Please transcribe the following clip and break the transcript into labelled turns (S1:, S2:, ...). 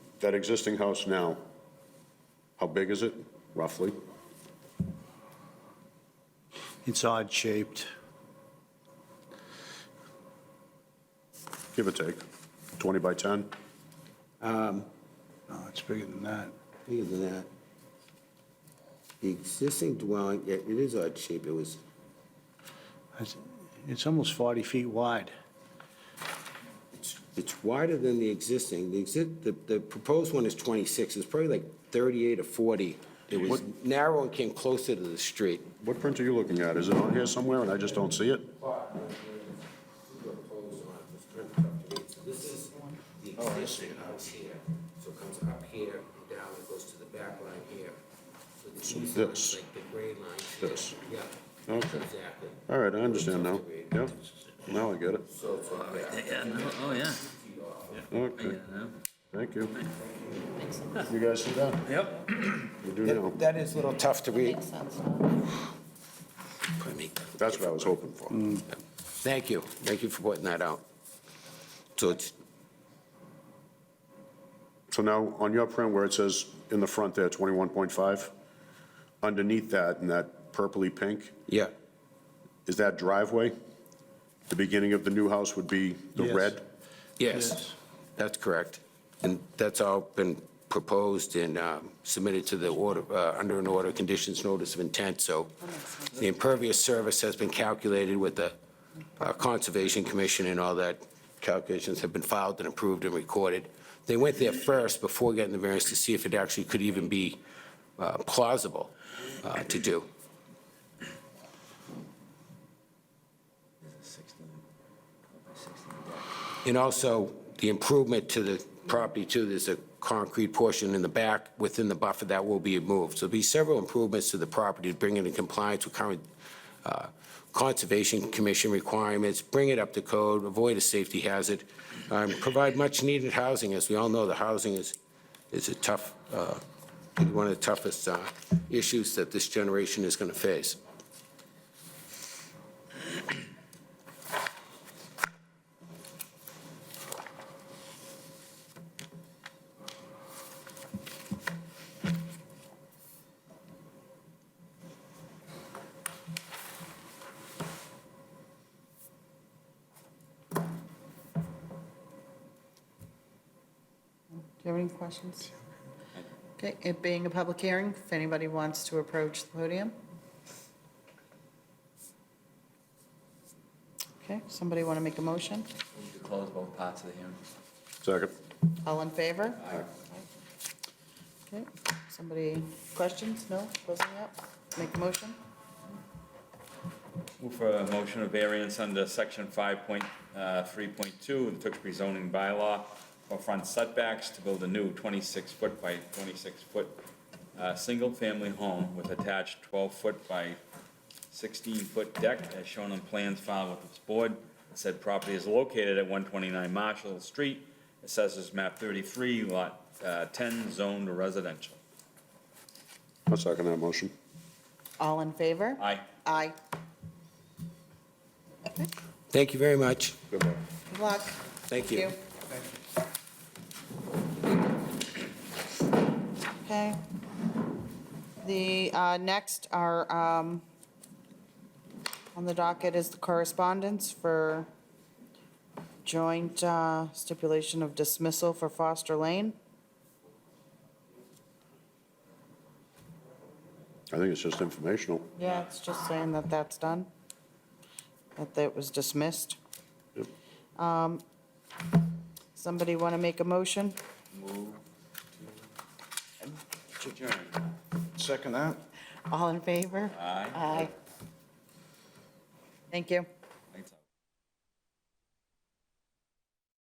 S1: that existing house now, how big is it roughly?
S2: It's odd-shaped.
S1: Give or take, 20 by 10?
S2: No, it's bigger than that.
S3: Bigger than that. The existing dwelling, yeah, it is odd shape, it was,
S2: It's- It's almost 40 feet wide.
S3: it's- it's wider than the existing. The exist, the, the proposed one is twenty-six, it's probably like thirty-eight or forty. It was narrow and came closer to the street.
S1: What print are you looking at? Is it on here somewhere and I just don't see it?
S3: This is the existing house here, so it comes up here, down, it goes to the back line here. So the east
S1: this.
S3: line's like the gray line here.
S1: This.
S3: Yeah.
S1: Okay.
S3: Exactly.
S1: All right, I understand now. Yeah, now I get it.
S3: So it's like that.
S4: Yeah, no, oh, yeah, I get
S1: Okay,
S4: it now.
S1: thank you. You guys sit down.
S4: Yep.
S1: We do now.
S3: That is a little tough to read.
S5: Makes sense.
S3: Pardon me.
S1: That's what I was hoping for.
S3: Thank you, thank you for pointing that out. So it's,
S1: So now, on your print where it says in the front there, 21.5, underneath that, in that purpley pink,
S3: yeah,
S1: is that driveway? The beginning of the new house would be the
S2: Yes.
S1: red?
S3: yes, that's correct. And that's all been proposed and um, submitted to the order, uh, under an order of conditions notice of intent, so the impervious service has been calculated with the uh, Conservation Commission and all that. Calculations have been filed and approved and recorded. They went there first before getting the variance to see if it actually could even be uh, plausible uh, to do. And also, the improvement to the property too, there's a concrete portion in the back within the buffer that will be moved. So there'll be several improvements to the property to bring it in compliance with current uh, Conservation Commission requirements, bring it up to code, avoid a safety hazard, um, provide much-needed housing. As we all know, the housing is, is a tough, uh, one of the toughest uh, issues that this generation is going to face.
S5: Do you have any questions? Okay, it being a public hearing, if anybody wants to approach the podium? Okay, somebody want to make a motion?
S4: Move to close both parts of the hearing.
S1: Second.
S5: All in favor? Okay, somebody, questions? No? Closing up? Make a motion?
S6: Move for a motion of variance under section uh, 5.3.2 of the Tewksbury zoning bylaw for front setbacks to build a new 26-foot by 26-foot uh, single-family home with attached 12-foot by 16-foot deck as shown on plans filed with this board. Said property is located at 129 Marshall Street, assessors map 33, lot uh, 10, zoned residential.
S1: I'll second that motion.
S5: All in favor?
S6: Aye.
S5: Aye.
S3: Thank you very much.
S1: Good luck.
S5: Good luck.
S3: Thank you.
S5: Okay. The uh, next are, um, on the docket is the correspondence for joint uh, stipulation of dismissal for Foster Lane.
S1: I think it's just informational.
S5: Yeah, it's just saying that that's done, that that was dismissed.
S1: Yep.
S5: Um, Somebody want to make a motion?
S4: Move to adjourn.
S2: Second that?
S5: All in favor?
S4: Aye.
S5: Aye. Thank you.